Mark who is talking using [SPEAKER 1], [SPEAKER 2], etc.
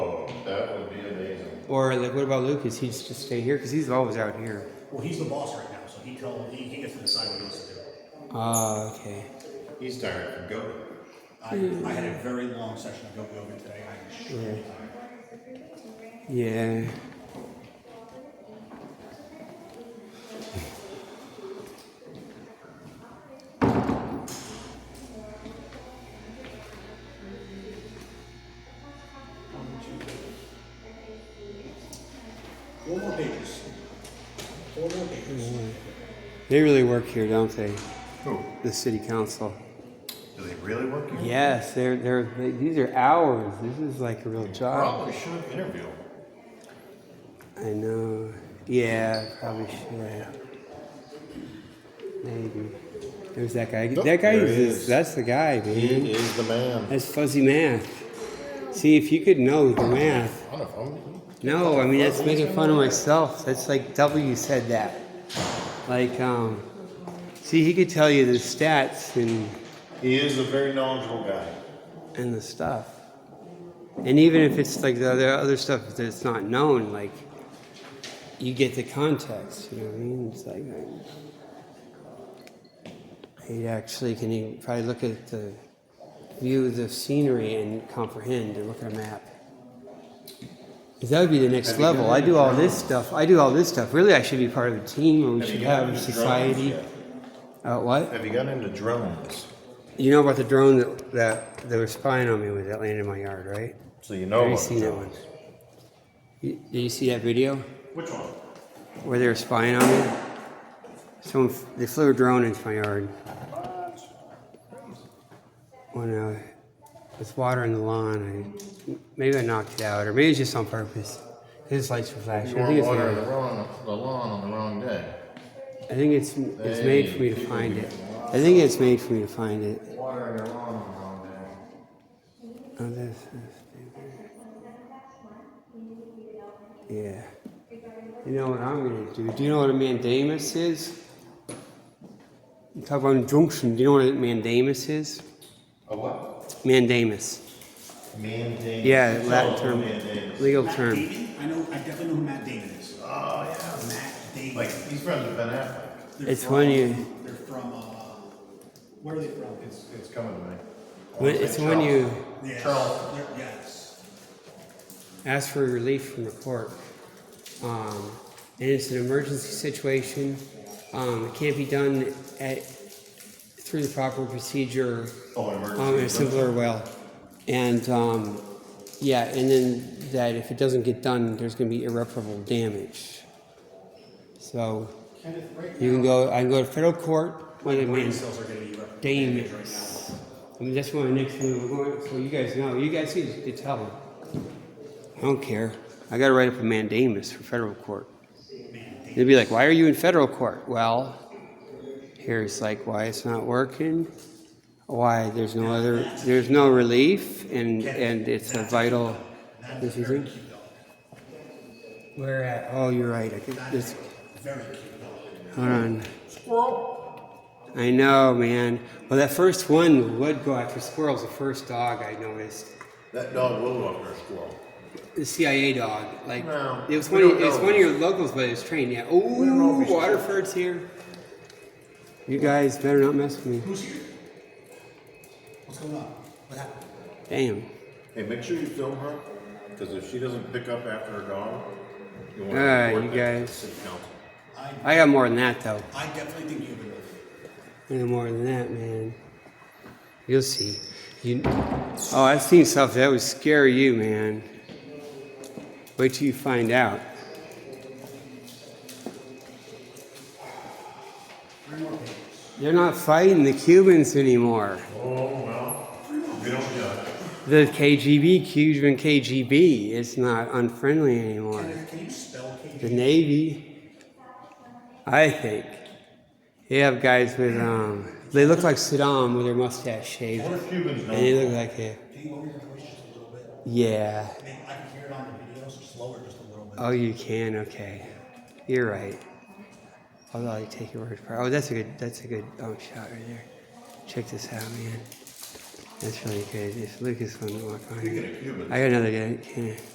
[SPEAKER 1] Or like, what about Lucas? He's just stay here because he's always out here.
[SPEAKER 2] Well, he's the boss right now, so he tell he, he gets to decide what he wants to do.
[SPEAKER 1] Ah, okay.
[SPEAKER 3] He's tired from going.
[SPEAKER 2] I, I had a very long session of yoga yoga today. I am extremely tired.
[SPEAKER 1] Yeah.
[SPEAKER 2] Four more pages. Four more pages.
[SPEAKER 1] They really work here, don't they?
[SPEAKER 3] Who?
[SPEAKER 1] The city council.
[SPEAKER 3] Do they really work here?
[SPEAKER 1] Yes, they're they're they, these are hours. This is like a real job.
[SPEAKER 3] Probably should interview him.
[SPEAKER 1] I know. Yeah, probably should. Maybe. There's that guy.
[SPEAKER 3] Nope,
[SPEAKER 1] that guy
[SPEAKER 3] there
[SPEAKER 1] Oh, is,
[SPEAKER 3] he is.
[SPEAKER 1] that's the guy, man.
[SPEAKER 3] He is the man.
[SPEAKER 1] That's fuzzy math. See if you could know the math.
[SPEAKER 3] I don't know.
[SPEAKER 1] No, I mean that's making fun of myself. That's like W said that. Like, um, see, he could tell you the stats and
[SPEAKER 3] He is a very knowledgeable guy.
[SPEAKER 1] and the stuff. And even if it's like the other other stuff that's not known, like you get the context. You know what I mean? It's like I- he actually can even probably look at the view of the scenery and comprehend and look at a map. 'Cause That would be the next level. I do all this stuff. I do all this stuff. Really, I should be part of a team, or we should have a society. Uh, what?
[SPEAKER 3] Have you gotten into drones?
[SPEAKER 1] You know about the drone that, that they were spying on me with that landed in my yard, right?
[SPEAKER 3] So you know
[SPEAKER 1] Have you
[SPEAKER 3] about
[SPEAKER 1] seen that one?
[SPEAKER 3] drones.
[SPEAKER 1] You- Did you see that video
[SPEAKER 2] Which one?
[SPEAKER 1] where they were spying on me? Someone f- they flew a drone into my yard when uh, I was watering the lawn. I maybe I knocked it out, or maybe it's just on purpose. His lights were flashing.
[SPEAKER 3] You
[SPEAKER 1] I
[SPEAKER 3] weren't
[SPEAKER 1] think it's,
[SPEAKER 3] watering the
[SPEAKER 1] made,
[SPEAKER 3] wrong, the lawn on the wrong day.
[SPEAKER 1] I think it's it's made for me to find it. I think it's made for me to find it.
[SPEAKER 3] Watering your lawn on the wrong day.
[SPEAKER 1] Oh, this is Yeah. You know what I'm gonna do? Do you know what a mandamus is? You talk about injunction. Do you know what a mandamus is?
[SPEAKER 3] A what?
[SPEAKER 1] Mandamus.
[SPEAKER 3] Mandamus.
[SPEAKER 1] Yeah, Latin term.
[SPEAKER 3] Mandamus.
[SPEAKER 1] Legal
[SPEAKER 2] Matt
[SPEAKER 1] term.
[SPEAKER 2] Damon? I know. I definitely know who Matt Damon is.
[SPEAKER 3] Oh,
[SPEAKER 2] Matt Damon.
[SPEAKER 3] yeah. Like, he's friends with Ben Affleck.
[SPEAKER 2] They're
[SPEAKER 1] It's
[SPEAKER 2] from-
[SPEAKER 1] when you-
[SPEAKER 2] They're from. Uh, where are they from?
[SPEAKER 3] It's, it's coming to me. I
[SPEAKER 1] When-
[SPEAKER 3] wanna say
[SPEAKER 1] It's when
[SPEAKER 3] Charles.
[SPEAKER 1] you
[SPEAKER 2] Yes.
[SPEAKER 3] Charleston.
[SPEAKER 2] They're- Yes.
[SPEAKER 1] ask for relief from the court. Um, and it's an emergency situation. Um, it can't be done at, through the proper procedure
[SPEAKER 3] Oh, an emergency.
[SPEAKER 1] um, in a simpler well. And um, yeah, and then that if it doesn't get done, there's going to be irreparable damage. So you can go. I can go to federal court. What I mean,
[SPEAKER 2] Sales are going to be rep-
[SPEAKER 1] damage.
[SPEAKER 2] right now.
[SPEAKER 1] I mean, that's my next move. We're going. So you guys know. You guys see the tell. I don't care. I got to write up a mandamus for federal court.
[SPEAKER 2] Man,
[SPEAKER 1] They'd be like, why are you in federal court? Well, here's like why it's not working, why there's no other, there's no relief, and, and it's a vital. This is it? Where at? Oh, you're right. I think this,
[SPEAKER 2] Very cute dog.
[SPEAKER 1] hold on. I know, man. Well, that first one would go after squirrels, the first dog I noticed.
[SPEAKER 3] That dog will walk her squirrel.
[SPEAKER 1] The CIA dog, like
[SPEAKER 3] No,
[SPEAKER 1] it was
[SPEAKER 3] we
[SPEAKER 1] one. Of,
[SPEAKER 3] don't
[SPEAKER 1] it was
[SPEAKER 3] know.
[SPEAKER 1] one of your locals, but it was trained. Yeah.
[SPEAKER 3] know
[SPEAKER 1] Ooh,
[SPEAKER 3] if it's-
[SPEAKER 1] Waterford's here. You guys better not mess with me.
[SPEAKER 2] Who's here? What's going on? What happened?
[SPEAKER 1] Damn.
[SPEAKER 3] Hey, make sure you film her, because if she doesn't pick up after her dog, you want to
[SPEAKER 1] Ah,
[SPEAKER 3] report
[SPEAKER 1] you
[SPEAKER 3] that to the
[SPEAKER 1] guys.
[SPEAKER 3] city council.
[SPEAKER 2] I
[SPEAKER 1] I got more than that though.
[SPEAKER 2] I definitely think you've been with.
[SPEAKER 1] I got more than that, man. You'll see. You. Oh, I've seen stuff that would scare you, man. Wait till you find out.
[SPEAKER 2] Three more pages.
[SPEAKER 1] They're not fighting the Cubans anymore.
[SPEAKER 3] Oh, well, we don't judge.
[SPEAKER 1] The KGB, Cuban KGB, it's not unfriendly anymore.
[SPEAKER 2] Can, can you spell KG?
[SPEAKER 1] the Navy, I think. They have guys with, um, they look like Saddam with their mustache shaved.
[SPEAKER 3] What if Cubans
[SPEAKER 1] And they
[SPEAKER 3] don't?
[SPEAKER 1] look like a,
[SPEAKER 2] Can you lower your voice just a little bit?
[SPEAKER 1] yeah.
[SPEAKER 2] I mean, I can hear it on the videos, just lower it just a little bit.
[SPEAKER 1] Oh, you can, okay. You're right. I'll let you take your word for it. Oh, that's a good, that's a good um, shot right there. Check this out, man. That's really good. If Lucas wouldn't walk on
[SPEAKER 3] Speaking
[SPEAKER 1] it.
[SPEAKER 3] of Cubans.
[SPEAKER 1] I got another guy. Can I?